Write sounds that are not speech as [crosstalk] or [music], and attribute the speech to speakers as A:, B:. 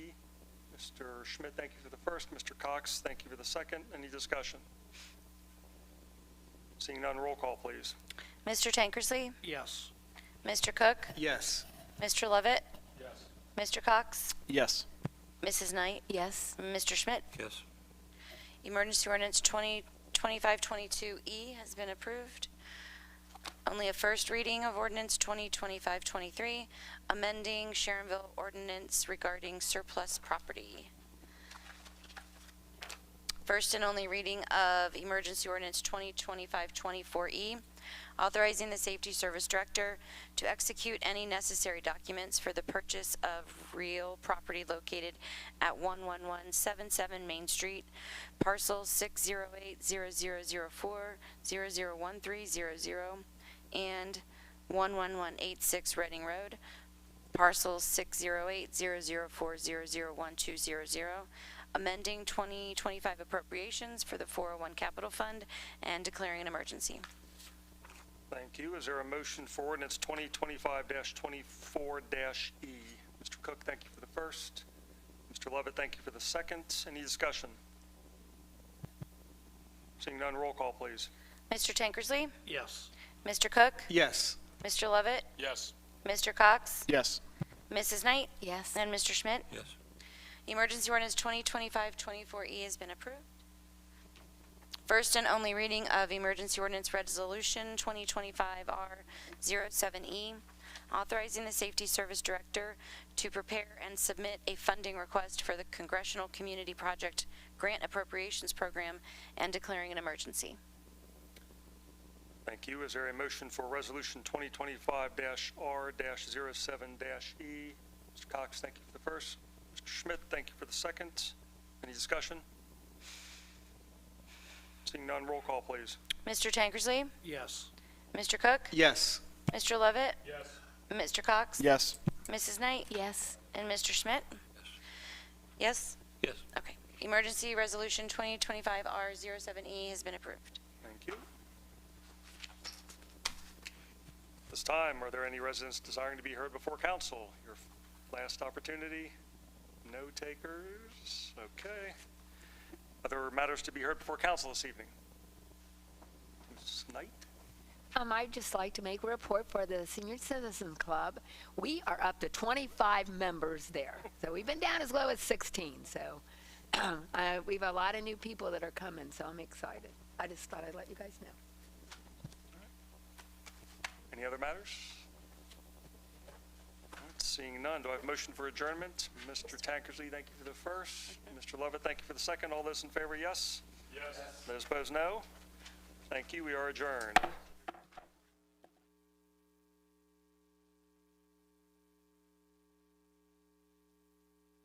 A: Mr. Schmidt, thank you for the first. Mr. Cox, thank you for the second. Any discussion? Seeing none, roll call, please.
B: Mr. Tankersley,
C: Yes.
B: Mr. Cook,
C: Yes.
B: Mr. Levitt,
A: Yes.
B: Mr. Cox,
C: Yes.
B: Mrs. Knight,
D: Yes.
B: Mr. Schmidt.
E: Yes.
B: Emergency ordinance 2025-22E E has been approved. Only a first reading of ordinance 2025-23, amending Sharonville ordinance regarding surplus property. First and only reading of emergency ordinance 2025-24E, E, authorizing the safety service director to execute any necessary documents for the purchase of real property located at 11177 Main Street, parcel 608-0004-001300, and 11186 Reading Road, parcel 608-00400120, amending 2025 appropriations for the 401 Capital Fund and declaring an emergency.
A: Thank you. Is there a motion for ordinance 2025-24-E? Mr. E? Cook, thank you for the first. Mr. Levitt, thank you for the second. Any discussion? Seeing none, roll call, please.
B: Mr. Tankersley,
C: Yes.
B: Mr. Cook,
C: Yes.
B: Mr. Levitt,
E: Yes.
B: Mr. Cox,
C: Yes.
B: Mrs. Knight,
D: Yes.
B: and Mr. Schmidt.
E: Yes.
B: Emergency ordinance 2025-24E E has been approved. First and only reading of emergency ordinance resolution 2025-R07E, E, authorizing the safety service director to prepare and submit a funding request for the Congressional Community Project Grant Appropriations Program and declaring an emergency.
A: Thank you. Is there a motion for resolution 2025-R-07-E? E? Mr. Cox, thank you for the first. Mr. Schmidt, thank you for the second. Any discussion? Seeing none, roll call, please.
B: Mr. Tankersley,
C: Yes.
B: Mr. Cook,
C: Yes.
B: Mr. Levitt. Mr. Cox.
C: Yes.
B: Mrs. Knight.
D: Yes.
B: And Mr. Schmidt? Yes?
E: Yes.
B: Okay. Emergency Resolution 2025-R07E E has been approved.
A: Thank you. This time, are there any residents desiring to be heard before council? Your last opportunity. No takers? Okay. Other matters to be heard before council this evening? Ms. Knight?
D: Um, I'd just like to make a report for the Senior Citizens Club. We are up to 25 members there. So we've been down as low as 16, so [clears throat] uh, we've a lot of new people that are coming, so I'm excited. I just thought I'd let you guys know.
A: Any other matters? All right, Seeing none, do I have a motion for adjournment? Mr. Tankersley, thank you for the first. Mr. Lovett, thank you for the second. All those in favor, yes? Yes. Those opposed, no? Thank you, we are adjourned.